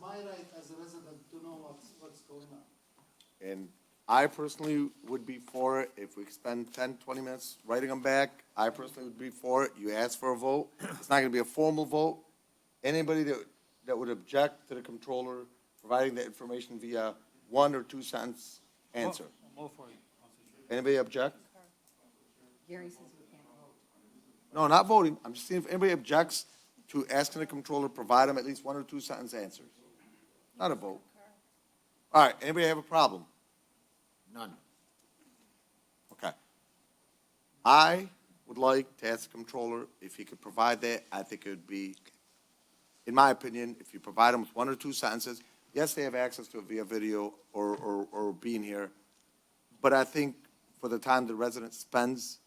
my right as a resident to know what's, what's going on. And I personally would be for it, if we spend 10, 20 minutes writing them back, I personally would be for it, you ask for a vote, it's not gonna be a formal vote. Anybody that, that would object to the controller providing the information via one or two sentence answer. Anybody object? Gary says we can't vote. No, not voting, I'm just seeing if anybody objects to asking the controller, to provide them at least one or two sentence answers. Not a vote. All right, anybody have a problem? None. Okay. I would like to ask the controller if he could provide that, I think it would be, in my opinion, if you provide them with one or two sentences, yes, they have access to it via video or, or, or being here, but I think for the time the resident spends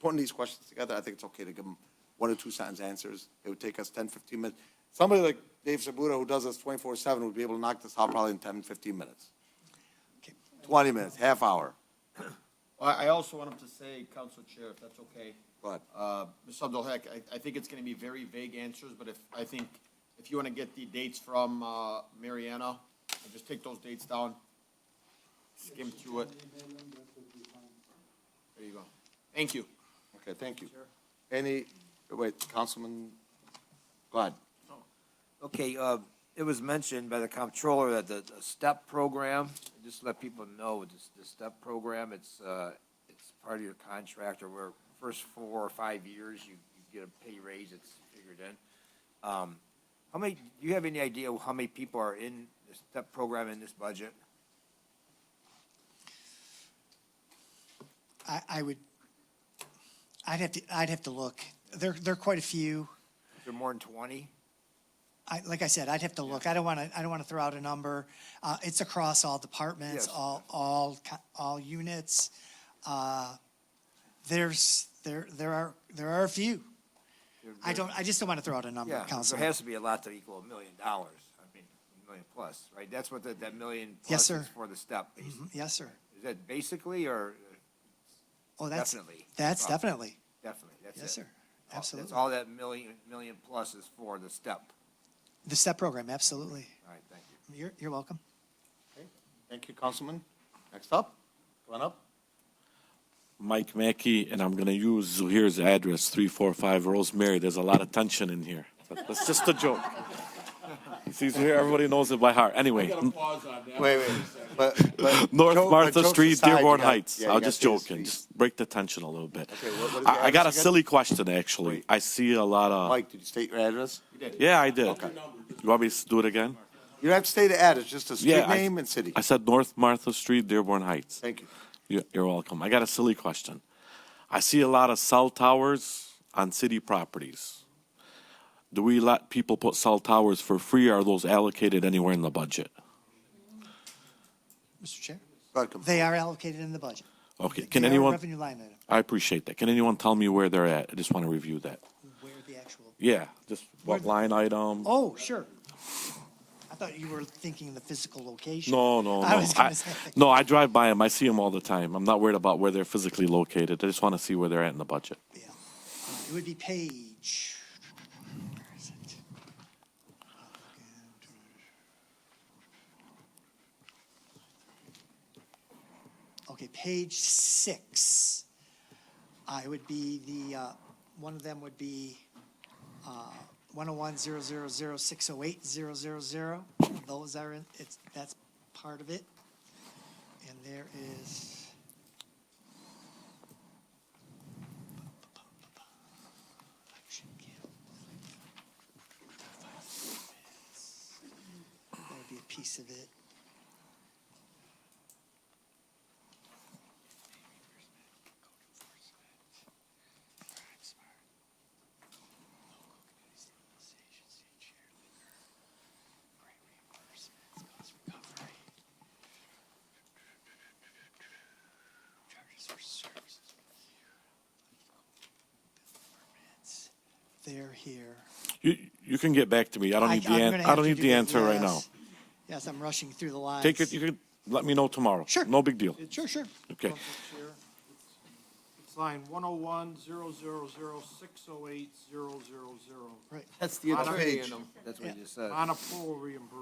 putting these questions together, I think it's okay to give them one or two sentence answers. It would take us 10, 15 minutes. Somebody like Dave Sabuda, who does this 24/7, would be able to knock this out probably in 10, 15 minutes. 20 minutes, half hour. Well, I also wanted to say, Council Chair, if that's okay. Go ahead. Uh, Ms. Abdalhak, I, I think it's gonna be very vague answers, but if, I think, if you wanna get the dates from, uh, Mariana, just take those dates down. Skim through it. There you go. Thank you. Okay, thank you. Any, wait, Councilman, go ahead. Okay, uh, it was mentioned by the comptroller that the the STEP program, just to let people know, this, the STEP program, it's, uh, it's part of your contract, or where first four or five years, you, you get a pay raise, it's figured in. Um, How many, do you have any idea how many people are in the STEP program in this budget? I, I would, I'd have to, I'd have to look. There, there are quite a few. Is there more than twenty? I, like I said, I'd have to look. I don't want to, I don't want to throw out a number. Uh, it's across all departments, Yes. all, all, co- all units. Uh, there's, there, there are, there are a few. I don't, I just don't want to throw out a number, Yeah, there Councilman. has to be a lot to equal a million dollars, I mean, a million plus, right? That's what that, that million Yes, plus is sir. Mm-hmm. for the STEP, basically. Yes, sir. Is that basically or Oh, that's, definitely? that's Well, definitely. Definitely, that's it. Yes, sir. All- Absolutely. That's all that million, million plus is for, the step. The STEP program, absolutely. All right, thank you. You're, you're welcome. Thank you, Councilman. Next up, come on up. Mike Mackey, and I'm going to use Zuhair's address, 345 Rosemary. There's a lot of tension in here. But that's just a joke. You see, Zuhair, everybody knows it by heart. Anyway, Wait, wait, but, but. North joke- but Martha jokes Street, aside, you Dearborn gotta- Heights. yeah, you I was gotta just say the joking. streets. Just break the tension a little bit. Okay, what- what is the I, I got a address again? silly question, actually. I see a lot of. Mike, did you state your address? Yeah, I did. You want me to do it again? You don't have to state the address, just the yeah. street I- name and city. I said North Martha Street, Dearborn Heights. Thank you. You- You're welcome. I got a silly question. I see a lot of cell towers on city properties. Do we let people put cell towers for free? Or are those allocated anywhere in the budget? Mr. Chair. Go ahead, Councilman. They are allocated in the budget. Okay, can They are a anyone, Revenue line item, I appreciate that. Can anyone tell me where they're at? I just want to review that. where the actual Yeah, just Where what the- line item? Oh, sure. I thought you were thinking the physical location. No, no, no. I was I- gonna say. No, I drive by them. I see them all the time. I'm not worried about where they're physically located. I just want to see where they're at in the budget. Yeah. Uh, It would be page. where is it? Okay, page six. Uh, it would be the, uh, one of them would be, uh, one oh one zero zero zero six oh eight zero zero zero. Those are in, it's, that's part of it. And there is. Action cam. That would be a piece of it. They're here. You, you can get back to me. I don't need the, I'm an- gonna I have don't to need do the that, answer right now. yes. Yes, I'm rushing through the lines. Take it, you can, let me know tomorrow. Sure. No big deal. Sure, sure. Okay. Council Chair, it's- It's line one oh one, zero, zero, zero, six oh eight, zero, zero, zero, Right. That's the That's what Yeah. you just said. on approval reimbursement.